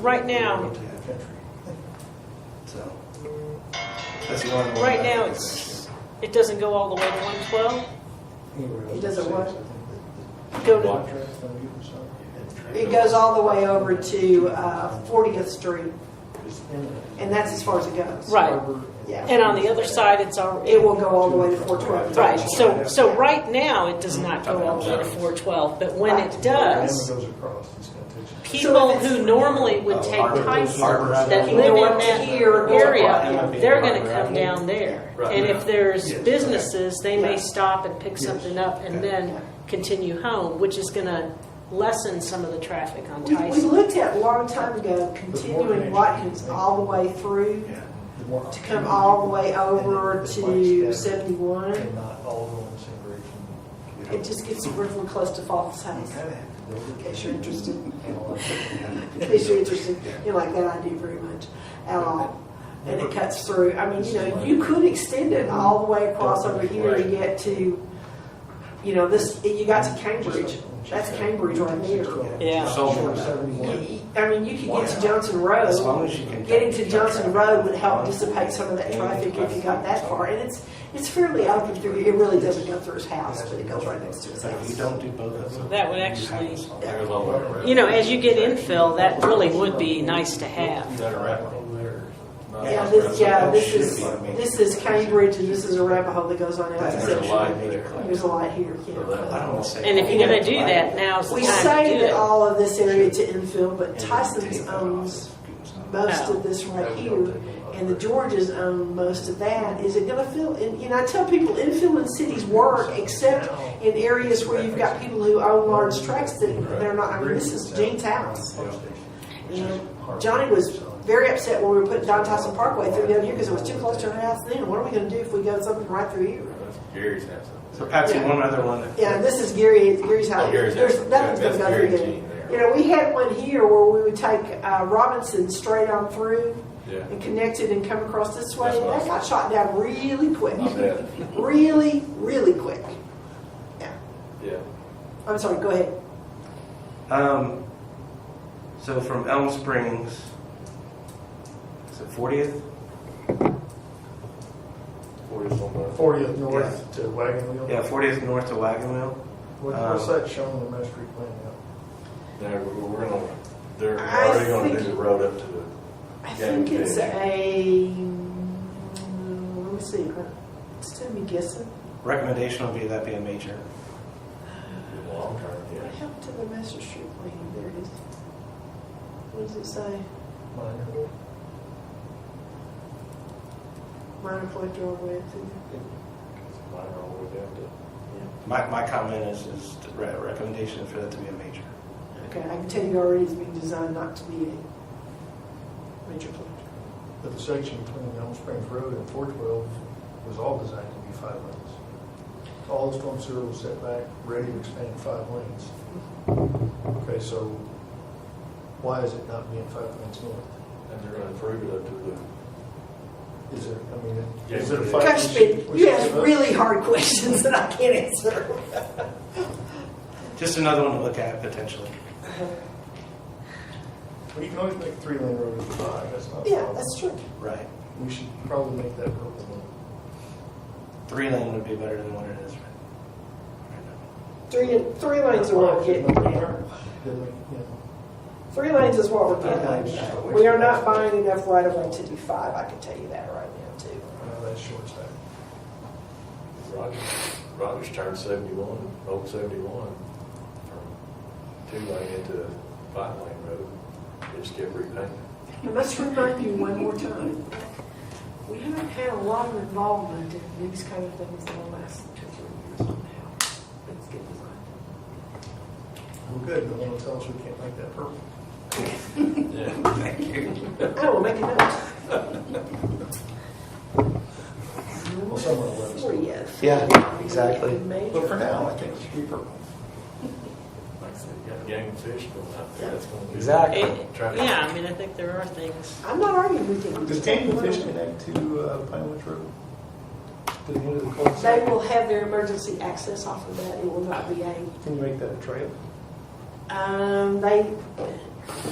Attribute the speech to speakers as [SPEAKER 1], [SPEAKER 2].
[SPEAKER 1] Right now,
[SPEAKER 2] So, that's one of the.
[SPEAKER 1] right now, it's, it doesn't go all the way to one twelve?
[SPEAKER 3] It does it what?
[SPEAKER 1] Go to,
[SPEAKER 3] It goes all the way over to uh, 40th Street, and that's as far as it goes.
[SPEAKER 1] right,
[SPEAKER 3] Yeah.
[SPEAKER 1] and on the other side, it's our,
[SPEAKER 3] It will go all the way to 412.
[SPEAKER 1] right, so, so right now, it does not go all the way to four twelve, but when it does,
[SPEAKER 2] goes across, it's gonna take
[SPEAKER 1] people who normally
[SPEAKER 2] Oh,
[SPEAKER 1] would take Tyson that
[SPEAKER 3] Can
[SPEAKER 1] live
[SPEAKER 3] go
[SPEAKER 1] in
[SPEAKER 3] up
[SPEAKER 1] that
[SPEAKER 3] here, go
[SPEAKER 1] area,
[SPEAKER 3] up.
[SPEAKER 1] they're gonna come down there. And if there's
[SPEAKER 2] Yes.
[SPEAKER 1] businesses, they may
[SPEAKER 3] Yeah.
[SPEAKER 1] stop and pick
[SPEAKER 2] Yes.
[SPEAKER 1] something up and
[SPEAKER 2] Yeah.
[SPEAKER 1] then continue home, which is gonna lessen some of the traffic on
[SPEAKER 3] We we
[SPEAKER 1] Tyson.
[SPEAKER 3] looked at a long time ago, continuing Watkins all the way through,
[SPEAKER 2] Yeah.
[SPEAKER 3] to come all the way over to 71.
[SPEAKER 4] And not all go in the same direction.
[SPEAKER 3] It just gets really close to Falls House, in case you're interested, in case you're interested in like that idea very much at all. And it cuts through, I mean, you know, you could extend it all the way across over here to get to, you know, this, you got to Cambridge. That's Cambridge right there.
[SPEAKER 1] Yeah.
[SPEAKER 3] You- I mean, you could get to Johnson Road.
[SPEAKER 2] as you can.
[SPEAKER 3] Getting to Johnson Road would help dissipate some of that traffic if you got that far. And it's, it's fairly open through, it really doesn't go through his house, but it goes right next to his
[SPEAKER 2] But if you
[SPEAKER 3] house.
[SPEAKER 2] don't do both of them.
[SPEAKER 1] That would actually-
[SPEAKER 3] Yeah.
[SPEAKER 1] You know, as you get infill, that really would be nice to have.
[SPEAKER 3] Yeah, this, yeah, this is, this is Cambridge and this is Arapahoe that goes on out to
[SPEAKER 2] That's
[SPEAKER 5] There's a
[SPEAKER 3] Central.
[SPEAKER 5] lot there.
[SPEAKER 3] There's a lot here,
[SPEAKER 2] I
[SPEAKER 3] yeah.
[SPEAKER 2] don't say.
[SPEAKER 1] And if you're gonna do that, now's the
[SPEAKER 3] We
[SPEAKER 1] time to
[SPEAKER 3] say
[SPEAKER 1] do
[SPEAKER 3] that
[SPEAKER 1] it.
[SPEAKER 3] all of this area to infill, but Tyson's um, owns most of this right here. and the Georges own most of that, is it gonna fill, and, you know, I tell people, infill in cities work, except in areas where you've got people who own large tracts that they're not, I mean, this is Gene's house. And Johnny was very upset when we were putting Don Tyson Parkway through down here, because it was too close to her house then, what are we gonna do if we go something right through here?
[SPEAKER 5] Gary's has some.
[SPEAKER 2] So Patsy, one other one. that-
[SPEAKER 3] Yeah, and this is Gary, Gary's house,
[SPEAKER 5] Oh, Gary's house.
[SPEAKER 3] there's, nothing's gonna
[SPEAKER 5] That's
[SPEAKER 3] go through
[SPEAKER 5] Gary's
[SPEAKER 3] there.
[SPEAKER 5] gene there.
[SPEAKER 3] You know, we had one here where we would take, uh, Robinson straight on through,
[SPEAKER 5] Yeah.
[SPEAKER 3] and connected and come across this way,
[SPEAKER 5] That's
[SPEAKER 3] and
[SPEAKER 5] what I
[SPEAKER 3] that got shot down really quick.
[SPEAKER 5] I bet.
[SPEAKER 3] Really, really quick. Yeah.
[SPEAKER 5] Yeah.
[SPEAKER 3] I'm sorry, go ahead.
[SPEAKER 2] Um, so from Elm Springs, is it 40th?
[SPEAKER 5] Forty's on the-
[SPEAKER 4] Fortieth north to Wagon Wheel.
[SPEAKER 2] Yeah, 40th north to Wagon Wheel.
[SPEAKER 4] What- What's that shown on the master plan now?
[SPEAKER 5] No, we're- we're gonna, they're
[SPEAKER 3] I
[SPEAKER 5] already gonna do
[SPEAKER 3] think-
[SPEAKER 5] the road up to the,
[SPEAKER 3] I
[SPEAKER 5] Yeah,
[SPEAKER 3] think
[SPEAKER 5] you
[SPEAKER 3] it's
[SPEAKER 5] finish.
[SPEAKER 3] a, mm, let me see, it's gonna be guessing.
[SPEAKER 2] Recommendation would be that be a major.
[SPEAKER 5] the long term,
[SPEAKER 3] What
[SPEAKER 5] yeah.
[SPEAKER 3] happened to the master street plan? There it is. What does it say?
[SPEAKER 4] Minor.
[SPEAKER 3] Minor collector all the way up to there.
[SPEAKER 5] Mine are all the way down to-
[SPEAKER 2] My, my comment is, is the re- recommendation for that to be a major.
[SPEAKER 3] Okay, I can tell you already it's being designed not to be a major collector.
[SPEAKER 4] But the section between Elm Springs Road and four twelve was all designed to be five lanes. All the storm sewer was set back, ready to expand five lanes. Okay, so why is it not being five lanes north?
[SPEAKER 5] And they're gonna improve it up to the.
[SPEAKER 4] Is there, I mean, is
[SPEAKER 5] Yeah.
[SPEAKER 4] it a five?
[SPEAKER 3] Gosh, Ben, you ask really hard questions that I can't answer.
[SPEAKER 2] Just another one to look at potentially.
[SPEAKER 4] But you can always make three lane road into five, that's not a
[SPEAKER 3] Yeah,
[SPEAKER 4] problem.
[SPEAKER 3] that's true.
[SPEAKER 2] Right.
[SPEAKER 4] We should probably make that road one.
[SPEAKER 2] Three lane would be better than what it is right right now.
[SPEAKER 3] Three, three lanes are what we're getting at.
[SPEAKER 4] Then we, you know,
[SPEAKER 3] Three lanes is what we're getting at. We are not buying enough right of way to do five, I can tell you that right now too.
[SPEAKER 4] now uh, that's short sight.
[SPEAKER 5] Rogers, Rogers turned seventy-one, old seventy-one, from two lane into a five lane road. It just kept repainting.
[SPEAKER 3] I must remind you one more time, we haven't had a lot of involvement in these kind of things in the last two, three years now. Let's get designed.
[SPEAKER 4] We're good, no one will tell us we can't make that purple.
[SPEAKER 5] Yeah.
[SPEAKER 3] I will make a note.
[SPEAKER 4] Well, someone will let us know.
[SPEAKER 3] Four Oh, yes.
[SPEAKER 2] Yeah, exactly.
[SPEAKER 3] Major.
[SPEAKER 4] But for now, I think it should be purple.
[SPEAKER 5] Like I said, you got gang of fish going out there. That's gonna be-
[SPEAKER 2] Exactly.
[SPEAKER 1] It- Yeah, I mean, I think there are things.
[SPEAKER 3] I'm not arguing with you.
[SPEAKER 4] Does Daniel Fish connect to uh, Pine Ridge Road? To the end of the
[SPEAKER 3] They
[SPEAKER 4] cul-de-sac?
[SPEAKER 3] will have their emergency access off of that, it will not be a,
[SPEAKER 4] Can you make that a trail?
[SPEAKER 3] um, they,